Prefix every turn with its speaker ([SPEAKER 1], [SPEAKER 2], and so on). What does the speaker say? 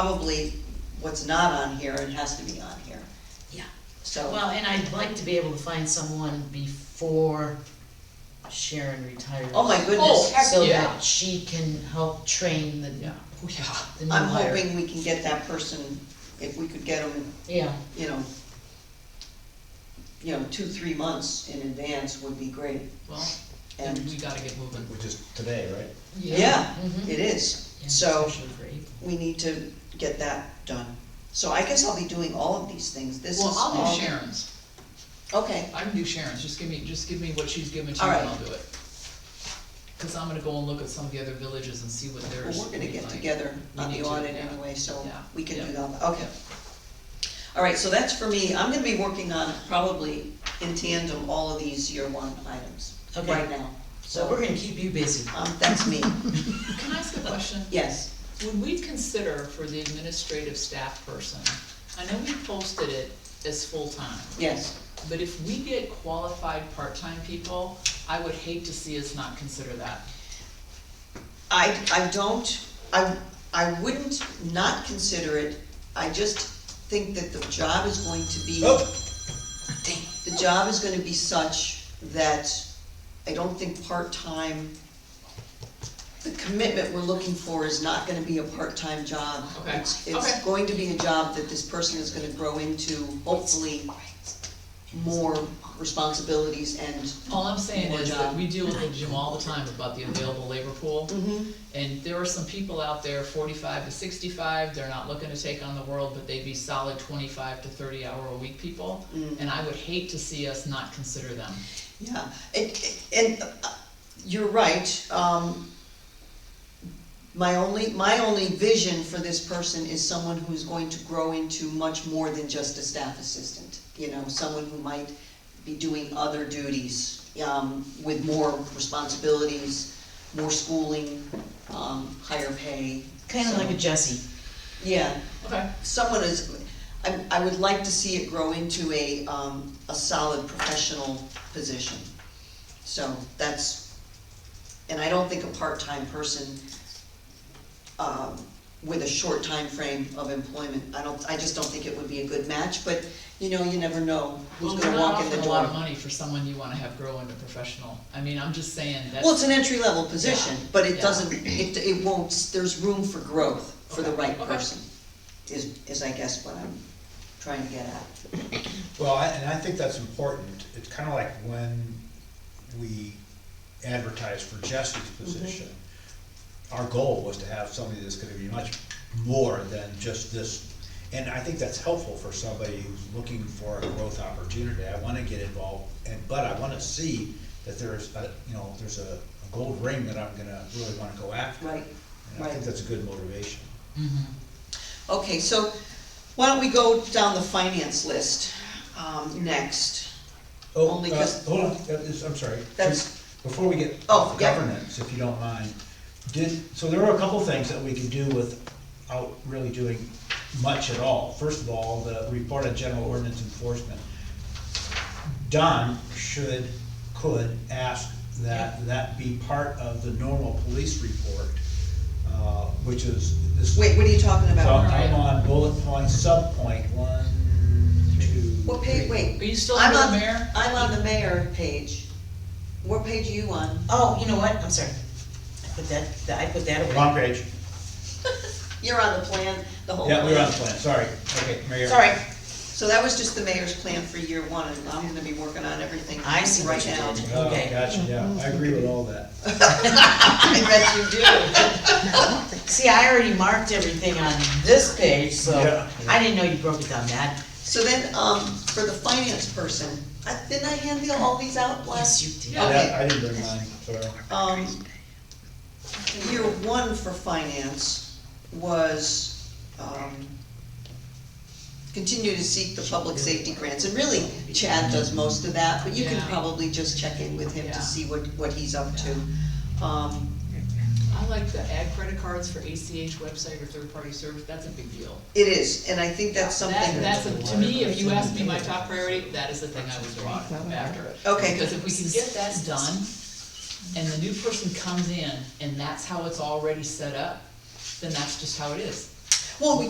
[SPEAKER 1] probably what's not on here and has to be on here,
[SPEAKER 2] Yeah,
[SPEAKER 1] so,
[SPEAKER 2] well, and I'd like to be able to find someone before Sharon retires.
[SPEAKER 1] oh my
[SPEAKER 3] Oh,
[SPEAKER 1] goodness.
[SPEAKER 3] heck
[SPEAKER 2] So
[SPEAKER 3] yeah.
[SPEAKER 2] that she can help train the,
[SPEAKER 3] Yeah, oh, yeah.
[SPEAKER 2] the new
[SPEAKER 1] I'm
[SPEAKER 2] hire.
[SPEAKER 1] hoping we can get that person, if we could get them,
[SPEAKER 2] Yeah,
[SPEAKER 1] you know, you know, two, three months in advance would be great,
[SPEAKER 3] Well, then
[SPEAKER 1] and,
[SPEAKER 3] we gotta get moving.
[SPEAKER 4] Which is today, right?
[SPEAKER 1] yeah,
[SPEAKER 2] Mhm.
[SPEAKER 1] it is,
[SPEAKER 2] Yeah,
[SPEAKER 1] so,
[SPEAKER 2] especially for April.
[SPEAKER 1] we need to get that done. So I guess I'll be doing all of these things, this is
[SPEAKER 3] Well, I'll
[SPEAKER 1] all-
[SPEAKER 3] do Sharon's.
[SPEAKER 1] Okay,
[SPEAKER 3] I can do Sharon's. Just give me, just give me what she's giving to
[SPEAKER 1] All
[SPEAKER 3] you and
[SPEAKER 1] right.
[SPEAKER 3] I'll do it. Cause I'm gonna go and look at some of the other villages and see what
[SPEAKER 1] well,
[SPEAKER 3] theirs.
[SPEAKER 1] we're gonna
[SPEAKER 3] look
[SPEAKER 1] get
[SPEAKER 3] like.
[SPEAKER 1] together
[SPEAKER 3] We
[SPEAKER 1] on
[SPEAKER 3] need
[SPEAKER 1] the
[SPEAKER 3] to,
[SPEAKER 1] audit
[SPEAKER 3] yeah.
[SPEAKER 1] anyway, so
[SPEAKER 3] Yeah,
[SPEAKER 1] we can
[SPEAKER 3] yeah.
[SPEAKER 1] do that, okay. All right, so that's for me, I'm gonna be working on probably in tandem all of these year one items
[SPEAKER 2] Okay.
[SPEAKER 1] right now.
[SPEAKER 2] So we're
[SPEAKER 1] So,
[SPEAKER 2] gonna keep you busy.
[SPEAKER 1] um, that's me,
[SPEAKER 3] Can I ask a question?
[SPEAKER 1] yes,
[SPEAKER 3] Would we consider for the administrative staff person, I know we posted it as full-time,
[SPEAKER 1] yes,
[SPEAKER 3] but if we get qualified part-time people, I would hate to see us not consider that.
[SPEAKER 1] I, I don't, I, I wouldn't not consider it, I just think that the job is going to be.
[SPEAKER 3] Oh.
[SPEAKER 1] The job is gonna be such that I don't think part-time, the commitment we're looking for is not gonna be a part-time job.
[SPEAKER 3] Okay,
[SPEAKER 1] It's, it's
[SPEAKER 3] okay.
[SPEAKER 1] going to be a job that this person is gonna grow into, hopefully, more responsibilities and.
[SPEAKER 3] All I'm saying
[SPEAKER 1] More
[SPEAKER 3] is
[SPEAKER 1] job.
[SPEAKER 3] that we deal with the gym all the time about the available labor pool. And there are some people out there, forty-five to sixty-five, they're not looking to take on the world, but they'd be solid twenty-five to thirty-hour-a-week people.
[SPEAKER 1] Mm.
[SPEAKER 3] And I would hate to see us not consider them.
[SPEAKER 1] Yeah, it, it- and uh, you're right, um, my only, my only vision for this person is someone who's going to grow into much more than just a staff assistant. You know, someone who might be doing other duties, um, with more responsibilities, more schooling, um, higher pay.
[SPEAKER 2] Kinda like a
[SPEAKER 1] So,
[SPEAKER 2] Jesse.
[SPEAKER 1] Yeah,
[SPEAKER 3] Okay.
[SPEAKER 1] someone is, I, I would like to see it grow into a, um, a solid professional position. So that's, and I don't think a part-time person, um, with a short time frame of employment, I don't, I just don't think it would be a good match, but, you know, you never know
[SPEAKER 3] Well,
[SPEAKER 1] who's
[SPEAKER 3] we're
[SPEAKER 1] gonna
[SPEAKER 3] not
[SPEAKER 1] walk in the
[SPEAKER 3] offering a
[SPEAKER 1] door.
[SPEAKER 3] lot of money for someone you wanna have grow into professional. I mean, I'm just saying
[SPEAKER 1] Well, it's
[SPEAKER 3] that's,
[SPEAKER 1] an entry-level position, but it
[SPEAKER 3] Yeah.
[SPEAKER 1] doesn't, it, it won't, there's room for growth for the
[SPEAKER 3] Okay,
[SPEAKER 1] right
[SPEAKER 3] okay.
[SPEAKER 1] person, is, is I guess what I'm trying to get at.
[SPEAKER 4] Well, I- and I think that's important. It's kind of like when we advertised for Jesse's position. Our goal was to have somebody that's gonna be much more than just this. And I think that's helpful for somebody who's looking for a growth opportunity. I wanna get involved, and, but I wanna see that there's a, you know, there's a a gold ring that I'm gonna, really wanna go after.
[SPEAKER 1] Right,
[SPEAKER 4] And I think
[SPEAKER 1] right.
[SPEAKER 4] that's a good motivation.
[SPEAKER 1] Okay, so why don't we go down the finance list, um, next?
[SPEAKER 4] Oh,
[SPEAKER 1] Only
[SPEAKER 4] uh,
[SPEAKER 1] 'cause-
[SPEAKER 4] Hold on, that is- I'm sorry.
[SPEAKER 1] That's-
[SPEAKER 4] Before we get
[SPEAKER 1] Oh,
[SPEAKER 4] off
[SPEAKER 1] yeah.
[SPEAKER 4] governance, if you don't mind, did, so there were a couple things that we could do without really doing much at all. First of all, the report on general ordinance enforcement. Don should, could ask that that be part of the normal police report, uh, which is this.
[SPEAKER 1] Wait, what are you talking
[SPEAKER 4] So
[SPEAKER 1] about?
[SPEAKER 4] I'm on bullet point, sub point, one, two.
[SPEAKER 1] What page,
[SPEAKER 4] three.
[SPEAKER 3] are
[SPEAKER 1] wait,
[SPEAKER 3] you still
[SPEAKER 1] I'm
[SPEAKER 3] under
[SPEAKER 1] on,
[SPEAKER 3] the mayor?
[SPEAKER 1] I'm on the mayor page. What page are you on?
[SPEAKER 2] Oh, you know what, I'm sorry. I put that, that- I put that away.
[SPEAKER 4] Wrong page.
[SPEAKER 1] You're on the plan, the whole
[SPEAKER 4] Yeah,
[SPEAKER 1] plan.
[SPEAKER 4] we were on the plan, sorry. Okay, Mayor.
[SPEAKER 2] Sorry,
[SPEAKER 1] So that was just the mayor's plan for year one, and I'm gonna be working on everything
[SPEAKER 2] I see what
[SPEAKER 1] right
[SPEAKER 2] you
[SPEAKER 1] now.
[SPEAKER 2] did.
[SPEAKER 4] Oh,
[SPEAKER 2] Okay.
[SPEAKER 4] gotcha, yeah, I agree with all that.
[SPEAKER 1] I bet you do.
[SPEAKER 2] see, I already marked everything on this page, so
[SPEAKER 4] Yeah.
[SPEAKER 2] I didn't know you broke it down that.
[SPEAKER 1] So then, um, for the finance person, I- didn't I hand you all these out last?
[SPEAKER 2] Yes, you did.
[SPEAKER 3] Yeah.
[SPEAKER 4] Yeah, I didn't bring mine, sorry.
[SPEAKER 1] Um, year one for finance was, um, continue to seek the public safety grants, and really Chad does most of that, but you can
[SPEAKER 3] Yeah.
[SPEAKER 1] probably just check in with him
[SPEAKER 3] Yeah.
[SPEAKER 1] to see what, what he's up to. Um,
[SPEAKER 3] I like the add credit cards for ACH website or third-party service, that's a big deal.
[SPEAKER 1] it is, and I think that's
[SPEAKER 3] That,
[SPEAKER 1] something,
[SPEAKER 3] that's, a- to me, if you ask me my top priority, that is the thing I would go on after.
[SPEAKER 1] Okay.
[SPEAKER 3] Because if we can get that done, and the new person comes in, and that's how it's already set up, then that's just how it is.
[SPEAKER 1] Well,